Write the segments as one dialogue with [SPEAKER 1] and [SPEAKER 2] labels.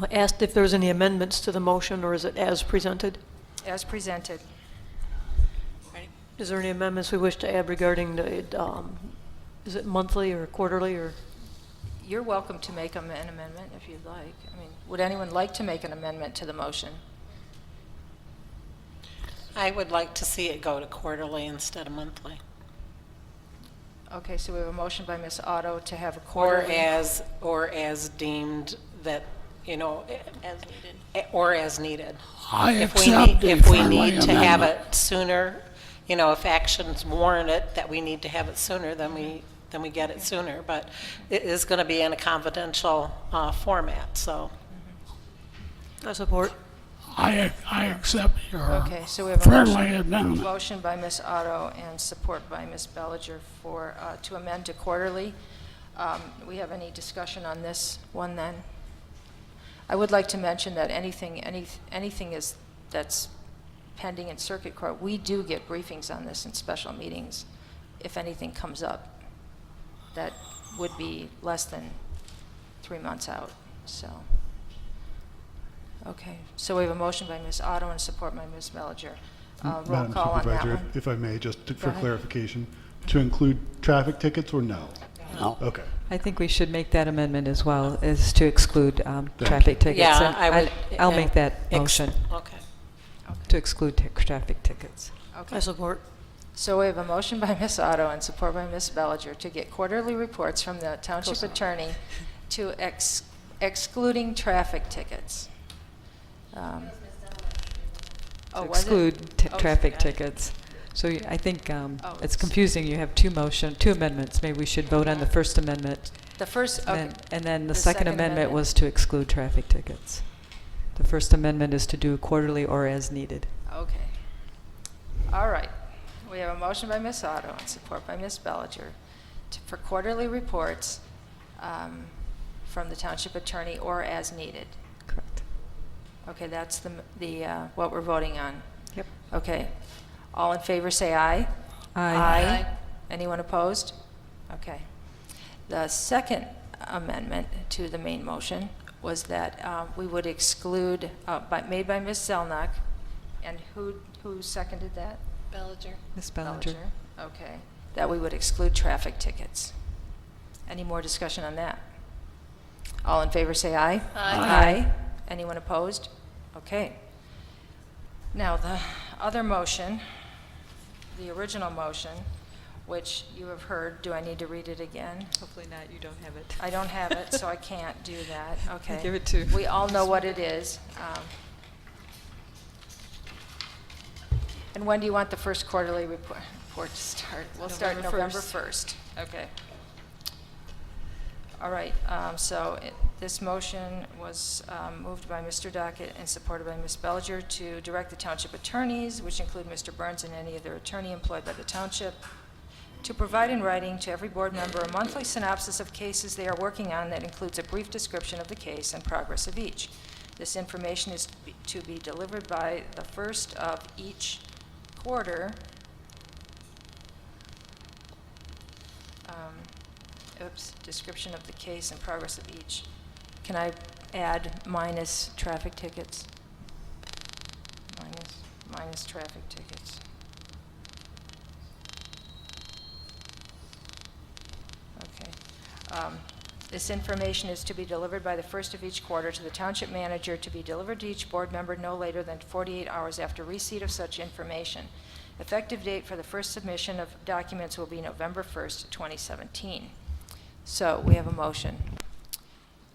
[SPEAKER 1] I Asked if there's any amendments to the motion, or is it as presented?
[SPEAKER 2] as presented.
[SPEAKER 1] Is there any amendments we wish to add regarding the, um, is it monthly or quarterly or?
[SPEAKER 2] You're welcome to make am- an amendment if you'd like. I mean, would anyone like to make an amendment to the motion?
[SPEAKER 3] I would like to see it go to quarterly instead of monthly.
[SPEAKER 2] Okay, so we have a motion by Ms. Otto to have a
[SPEAKER 3] Or
[SPEAKER 2] quarterly.
[SPEAKER 3] as, or as deemed that, you know. As needed. Or as needed.
[SPEAKER 4] I
[SPEAKER 3] If we need,
[SPEAKER 4] accept it
[SPEAKER 3] if we
[SPEAKER 4] for my
[SPEAKER 3] need to have
[SPEAKER 4] amendment.
[SPEAKER 3] it sooner, you know, if actions warrant it, that we need to have it sooner, then we, then we get it sooner. But it is going to be in a confidential uh, format, so.
[SPEAKER 1] I support.
[SPEAKER 4] I, I accept your
[SPEAKER 2] Okay, so we have a
[SPEAKER 4] friendly
[SPEAKER 2] motion-
[SPEAKER 4] amendment.
[SPEAKER 2] Motion by Ms. Otto and support by Ms. Bellinger for, uh, to amend to quarterly. Um, We have any discussion on this one then? I would like to mention that anything, any anything is, that's pending in circuit court, we do get briefings on this in special meetings, if anything comes up that would be less than three months out, so. Okay, so we have a motion by Ms. Otto and support by Ms. Mellinger. Uh, Roll
[SPEAKER 5] Madam
[SPEAKER 2] call on that
[SPEAKER 5] Supervisor,
[SPEAKER 2] one.
[SPEAKER 5] if I may, just to- for
[SPEAKER 2] ahead.
[SPEAKER 5] clarification, to include traffic tickets or no?
[SPEAKER 4] No.
[SPEAKER 5] Okay.
[SPEAKER 6] I think we should make that amendment as well, is to exclude um,
[SPEAKER 5] you.
[SPEAKER 6] traffic tickets.
[SPEAKER 3] Yeah,
[SPEAKER 6] And
[SPEAKER 3] I would. eh,
[SPEAKER 6] I'll- I'll make that
[SPEAKER 3] ex-
[SPEAKER 6] motion,
[SPEAKER 3] Okay.
[SPEAKER 6] to exclude tic- traffic tickets.
[SPEAKER 1] I
[SPEAKER 2] Okay,
[SPEAKER 1] support.
[SPEAKER 2] so we have a motion by Ms. Otto and support by Ms. Bellinger to get quarterly reports from the township attorney to ex- excluding traffic tickets. Um,
[SPEAKER 6] To
[SPEAKER 2] Oh, was it?
[SPEAKER 6] Exclude ti-
[SPEAKER 2] Oh,
[SPEAKER 6] traffic
[SPEAKER 2] got it.
[SPEAKER 6] tickets. So you- I think um,
[SPEAKER 2] Oh, it's-
[SPEAKER 6] it's confusing, you have two motion, two amendments. Maybe we should vote on the First Amendment,
[SPEAKER 2] The first, okay.
[SPEAKER 6] and and then the Second Amendment was to exclude traffic tickets. The First Amendment is to do quarterly or as needed.
[SPEAKER 2] Okay. All right. We have a motion by Ms. Otto and support by Ms. Bellinger to- for quarterly reports um, from the township attorney or as needed.
[SPEAKER 6] Correct.
[SPEAKER 2] Okay, that's the, the, uh, what we're voting on.
[SPEAKER 6] Yep.
[SPEAKER 2] Okay. All in favor, say aye.
[SPEAKER 6] Aye.
[SPEAKER 2] Anyone opposed? Okay. The second amendment to the main motion was that uh, we would exclude, uh, by- made by Ms. Zelnok, and who, who seconded that?
[SPEAKER 6] Ms. Bellinger?
[SPEAKER 2] Okay. That we would exclude traffic tickets. Any more discussion on that? All in favor, say aye. Aye. Anyone opposed? Okay. Now, the other motion, the original motion, which you have heard, do I need to read it again?
[SPEAKER 6] Hopefully not, you don't have it.
[SPEAKER 2] I don't have it, so I can't do that, okay.
[SPEAKER 6] Give it to-
[SPEAKER 2] We all know what it is. um, And when do you want the first quarterly report report to start? We'll start
[SPEAKER 6] November
[SPEAKER 2] November 1st.
[SPEAKER 6] first.
[SPEAKER 2] Okay. All right, um, so it- this motion was um, moved by Mr. Dockett and supported by Ms. Bellinger to direct the township attorneys, which include Mr. Burns and any other attorney employed by the township, to provide in writing to every board member a monthly synopsis of cases they are working on that includes a brief description of the case and progress of each. This information is to be- to be delivered by the first of each quarter um, oops, description of the case and progress of each. Can I add minus traffic tickets? Minus, minus traffic tickets. Okay. Um, This information is to be delivered by the first of each quarter to the township manager, to be delivered to each board member no later than 48 hours after receipt of such information. Effective date for the first submission of documents will be November 1st, 2017. So we have a motion.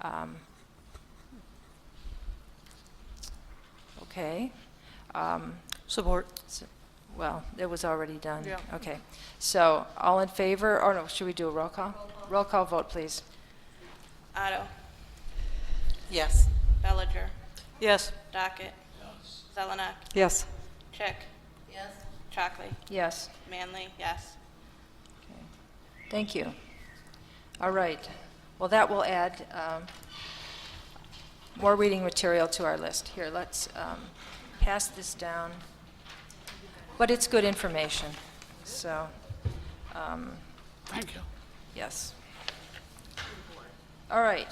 [SPEAKER 2] Um, Okay. Um,
[SPEAKER 1] Support.
[SPEAKER 2] so- Well, it was already done. Okay. So, all in favor, or no, should we do a roll call? Roll call vote, please.
[SPEAKER 7] Otto.
[SPEAKER 3] Yes.
[SPEAKER 7] Bellinger.
[SPEAKER 1] Yes.
[SPEAKER 7] Docket. Zelenak.
[SPEAKER 6] Yes.
[SPEAKER 7] Chick. Yes. Chockley.
[SPEAKER 2] Yes.
[SPEAKER 7] Manley, yes.
[SPEAKER 2] Okay. Thank you. All right. Well, that will add um, more reading material to our list. Here, let's um, pass this down. But it's good information, so, um,
[SPEAKER 4] Thank you.
[SPEAKER 2] yes. All right.